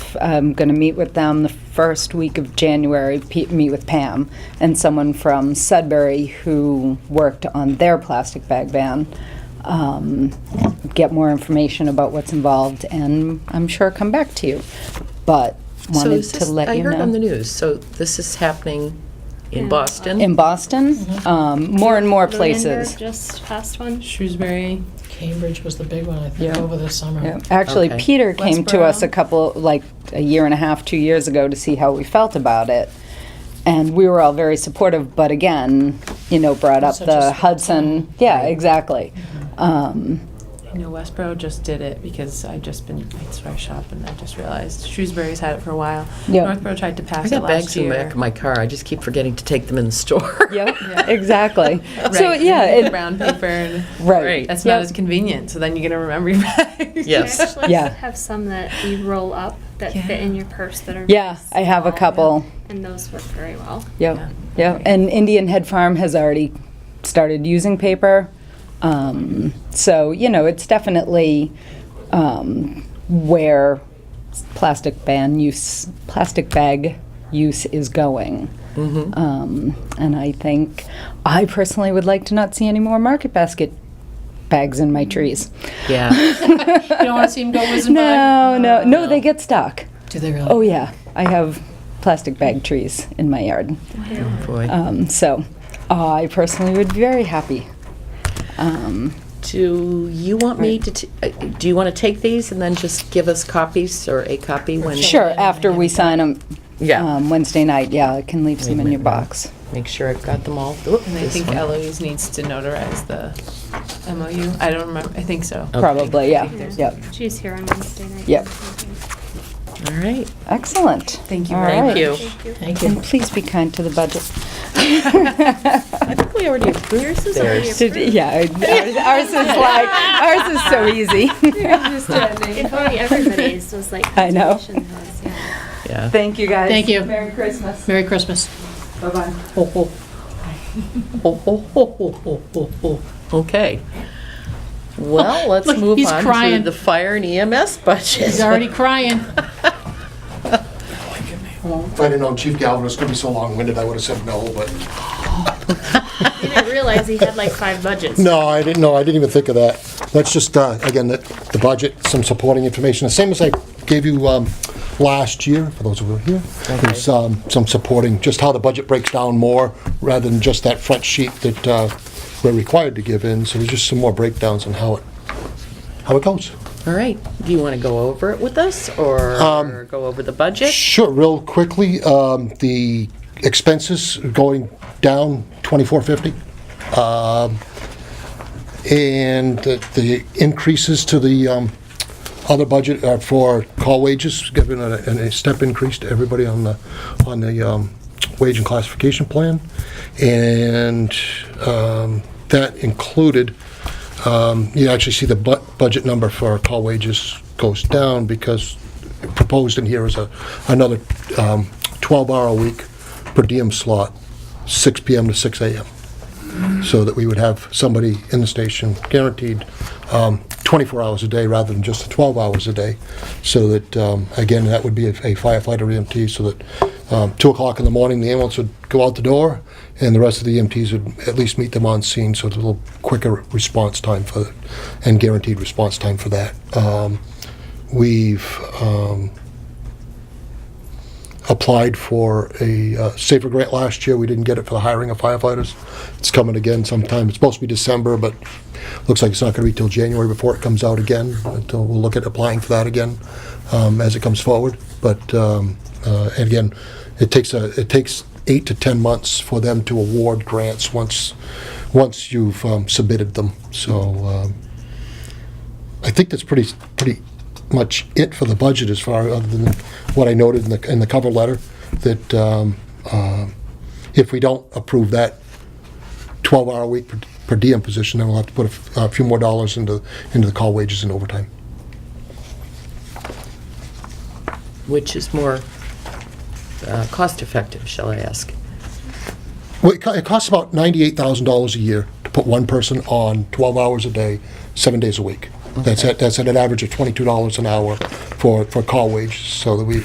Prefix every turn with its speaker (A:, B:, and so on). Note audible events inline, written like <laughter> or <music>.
A: I'm going to meet with them the first week of January, pe- meet with Pam and someone from Sudbury who worked on their plastic bag ban, um, get more information about what's involved, and I'm sure come back to you. But
B: So
A: wanted
B: is
A: to
B: this-
A: let you know.
B: I heard on the news, so this is happening in Boston?
A: In Boston,
B: Mm-hmm.
A: um, more and more
C: Lunenburg
A: places.
C: Just passed one.
D: Shrewsbury, Cambridge was the big one, I think,
A: Yeah.
D: over the summer.
A: Yeah. Actually,
B: Okay.
A: Peter came to us
D: Westboro.
A: a couple, like a year and a half, two years ago to see how we felt about it. And we were all very supportive, but again, you know, brought up
D: Such a
A: the
D: small
A: Hudson. Yeah, exactly. Um,
E: You know, Westboro just did it because I've just been, I swear shop and I just realized Shrewsbury's had it for a while.
A: Yeah.
E: Northboro tried to
B: I
E: pass it
B: got
E: last
B: bags in the
E: year.
B: back of my car, I just keep forgetting to take them in the store.
A: <laughs> yep,
B: <laughs>
A: exactly. So,
E: Right,
A: yeah,
E: and
A: it,
E: Brown paper and.
A: right.
B: Right.
E: That's not
A: Yep.
E: as convenient, so then you're gonna remember your bags.
C: We
B: Yes.
C: actually
A: Yeah.
C: have some that you roll up that
E: Yeah.
C: fit in your purse that are.
A: Yeah,
C: nice,
A: I have a
C: small,
A: couple.
C: And those work very well.
E: Yeah.
A: Yep, yep. And Indian Head Farm has already started using paper. Um, so, you know, it's definitely um, where plastic ban use, plastic bag use is going. Um, and I think, I personally would like to not see any more market basket bags in my trees.
B: Yeah.
D: You don't want to see them go
E: <laughs>
A: <laughs>
D: whizzing
A: No,
B: Uh,
A: no,
E: Oh,
A: no, they get stuck.
D: by? Do they really?
A: Oh, yeah. I have plastic bag trees in my yard.
B: Boy.
A: Um, so I personally would be very happy. Um,
B: Do you want me to, t- uh, do you want to take these and then just give us copies or a copy when?
A: sure, after we sign them
B: Yeah.
A: um, Wednesday night, yeah, I can leave some in your box.
B: Make sure I've got them all. Oop,
E: And I
B: this
E: think
B: one.
E: Eloise needs to notarize the MOU. I don't remember, I think so.
B: Okay.
A: Probably, yeah. Yep.
C: She's here on Wednesday night.
A: Yep.
B: All right.
A: Excellent.
E: Thank you
A: All
E: very
A: right.
B: Thank you.
C: Thank you.
D: Thank you.
A: And please be kind to the budget.
B: <laughs> I think
A: <laughs>
B: we already approved
C: is already
B: theirs.
A: Did- yeah, <laughs> ours, ours is like, ours is so
B: <laughs>
C: <laughs>
A: easy.
C: If only everybody's was like.
A: I know.
C: conservation was, yeah.
B: Yeah.
A: Thank you, guys.
D: Thank you.
A: Merry Christmas.
D: Merry Christmas.
A: Bye-bye.
B: Ho, ho. Ho, ho, ho, ho, ho, ho, ho. Okay. Oh, Well, let's
D: Look,
B: move
D: he's
B: on to
D: crying.
B: the fire and EMS budget.
D: He's already crying.
F: If I'd have known Chief Galvin was gonna be so long-winded, I would have said no, but.
C: I didn't realize he had like five budgets.
F: No, I didn't, no, I didn't even think of that. That's just, uh, again, the the budget, some supporting information, the same as I gave you um, last year, for those who were here. There's um, some supporting, just how the budget breaks down more, rather than just that front sheet that uh, we're required to give in. So there's just some more breakdowns on how it, how it goes.
B: <laughs> All right. Do you want to go over it with us or go over the budget?
F: Sure, real quickly, um, the expenses are going down 2450. Um, And the the increases to the um, other budget are for call wages, given a and a step increase to everybody on the, on the um, wage and classification plan. And um, that included, um, you actually see the bu- budget number for call wages goes down because proposed in here is a, another um, 12-hour-a-week per diem slot, 6 PM to 6 AM, so that we would have somebody in the station guaranteed um, 24 hours a day rather than just the 12 hours a day, so that, um, again, that would be a firefighter EMT, so that um, 2 o'clock in the morning, the ambulance would go out the door, and the rest of the EMTs would at least meet them on scene, so it's a little quicker response time for, and guaranteed response time for that. Um, We've um, applied for a uh, safer grant last year. We didn't get it for the hiring of firefighters. It's coming again sometime. It's supposed to be December, but looks like it's not going to be till January before it comes out again. Until we'll look at applying for that again um, as it comes forward. But um, uh, and again, it takes a it takes eight to ten months for them to award grants once once you've um, submitted them. So. Um, I think that's pretty, pretty much it for the budget as far, other than what I noted in the, in the cover letter, that um, um, if we don't approve that 12-hour week per- per diem position, then we'll have to put a f- a few more dollars into, into the call wages and overtime.
B: Which is more uh, cost-effective, shall I ask?
F: Well, it co- it costs about $98,000 a year to put one person on 12 hours a day, seven days a week. That's at, that's at an average of $22 an hour for, for call wages, so that we,